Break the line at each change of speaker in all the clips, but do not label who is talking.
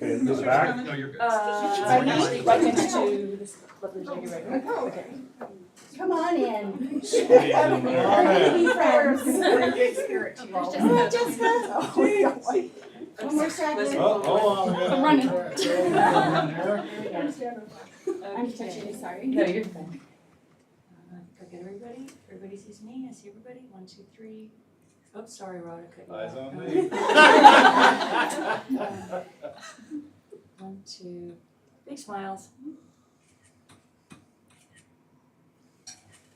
in the back?
No, you're good.
Uh,
Right next-
right next to this lovely lady right here. Okay.
Come on in.
Alright.
Be friends. Oh, Jessica. Oh, yeah. One more
Listen.
second.
Oh, hold on, we gotta-
I'm running. I'm
Okay.
touching you, sorry.
No, you're fine.
Uh, Go get everybody, everybody sees me, I see everybody, one, two, three. Oops, sorry, Rod, I cut you
Eyes
off.
on
Uh,
me.
One, two, big smiles.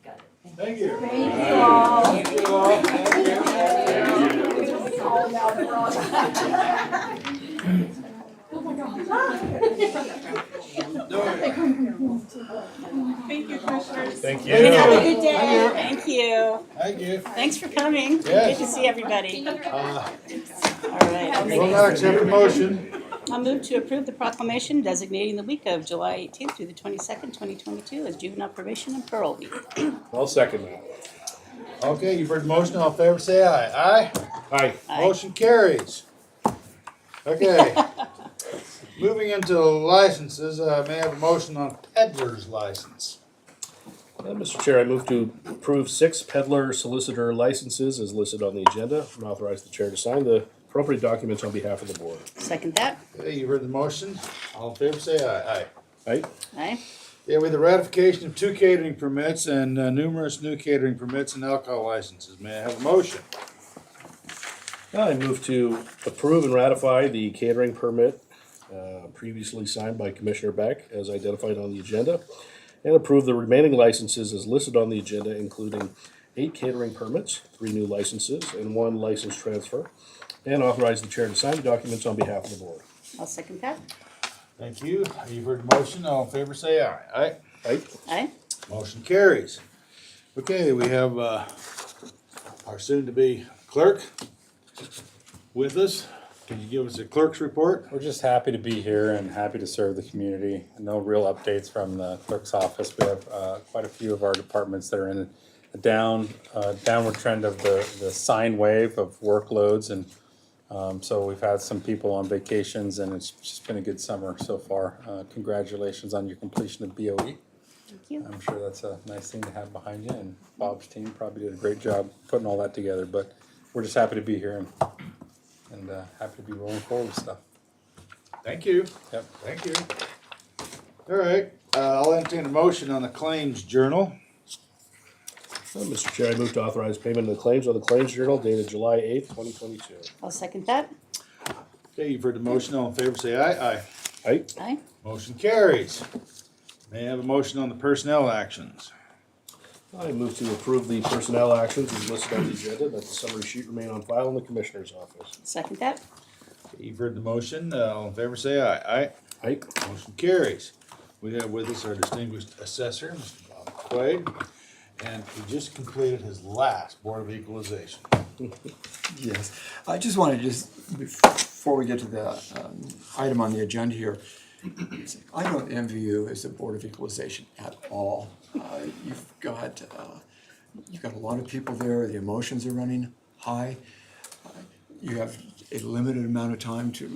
Got it, thank you.
Thank you.
Thank you all.
Alright. Thank you all. Thank you.
Thank you.
Thank you.
Oh, now we're on.
No,
Thank you, commissioners.
Thank you.
Have a
Thank
good day. Thank you.
you.
Thanks for coming. Good
Yes.
to see everybody.
Uh,
All right. I'll
We'll
make-
not accept a motion.
I'll move to approve the proclamation designating the week of July 18th through the 22nd, 2022 as Juvenile Probation and Parole Week.
I'll second that.
Okay, you've heard the motion, all in favor, say aye.
Aye.
Aye?
Aye.
Motion carries. Okay. Moving into licenses, uh, may I have a motion on peddler's license?
Uh, Mr. Chair, I move to approve six peddler solicitor licenses as listed on the agenda and authorize the chair to sign the appropriate documents on behalf of the board.
Second that.
Okay, you've heard the motion, all in favor, say aye. Aye.
Aye?
Aye.
Yeah, with the ratification of two catering permits and uh, numerous new catering permits and alcohol licenses, may I have a motion?
I move to approve and ratify the catering permit uh, previously signed by Commissioner Beck as identified on the agenda and approve the remaining licenses as listed on the agenda, including eight catering permits, three new licenses, and one license transfer, and authorize the chair to sign the documents on behalf of the board.
I'll second that.
Thank you, you've heard the motion, all in favor, say aye. Aye?
Aye?
Aye.
Motion carries. Okay, we have uh, our soon-to-be clerk with us. Can you give us a clerk's report?
We're just happy to be here and happy to serve the community. No real updates from the clerk's office. We have uh, quite a few of our departments that are in a down, uh, downward trend of the, the sine wave of workloads. And um, so we've had some people on vacations and it's just been a good summer so far. Uh, Congratulations on your completion of BOE.
Thank you.
I'm sure that's a nice thing to have behind you and Bob's team probably did a great job putting all that together. But we're just happy to be here and, and uh, happy to be rolling forward with stuff.
Thank you.
Yep.
Thank you. All right, uh, I'll entertain a motion on the claims journal.
Uh, Mr. Chair, I move to authorize payment of the claims on the Claims Journal dated July eighth, twenty twenty-two.
I'll second that.
Okay, you've heard the motion, all in favor, say aye. Aye.
Aye?
Aye.
Motion carries. May I have a motion on the personnel actions?
I move to approve the personnel actions as listed on the agenda, that the summary sheet remain on file in the Commissioner's office.
Second that.
Okay, You've heard the motion, uh, all in favor, say aye. Aye?
Aye?
Motion carries. We have with us our distinguished assessor, Mr. Bob Quaid, and he just completed his last Board of Equalization.
Yes, I just wanted to just, before we get to the um, item on the agenda here, I don't envy you as a Board of Equalization at all. Uh, You've got, uh, you've got a lot of people there, the emotions are running high. Uh, You have a limited amount of time to,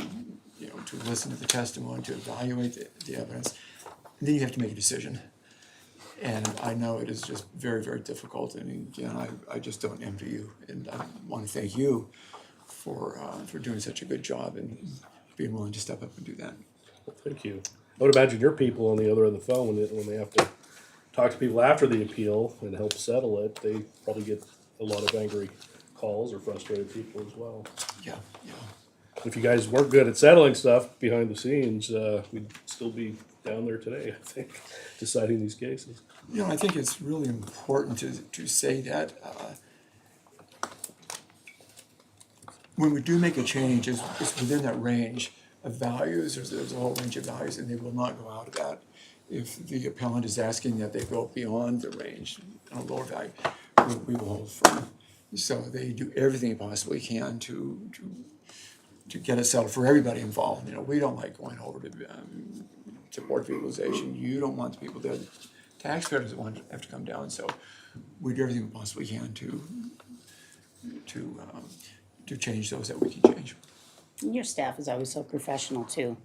you know, to listen to the testimony, to evaluate the, the evidence. And then you have to make a decision. And I know it is just very, very difficult, and again, I, I just don't envy you, and I wanna thank you for, uh, for doing such a good job and being willing to step up and do that.
Thank you. I would imagine your people on the other end of the phone, when they, when they have to talk to people after the appeal and help settle it, they probably get a lot of angry calls or frustrated people as well.
Yeah, yeah,
If you guys weren't good at settling stuff behind the scenes, uh, we'd still be down there today, I think, deciding these cases.
you know, I think it's really important to, to say that, uh, when we do make a change, it's, it's within that range of values, there's, there's a whole range of values, and they will not go out of that. If the appellant is asking that they go beyond the range on a lower value, we, we will hold firm. So they do everything they possibly can to, to, to get it settled for everybody involved, you know, we don't like going over to, um, to board of equalization, you don't want the people there, the taxpayer doesn't want to have to come down, so we do everything we possibly can to, to, um, to change those that we can change.
And Your staff is always so professional, too.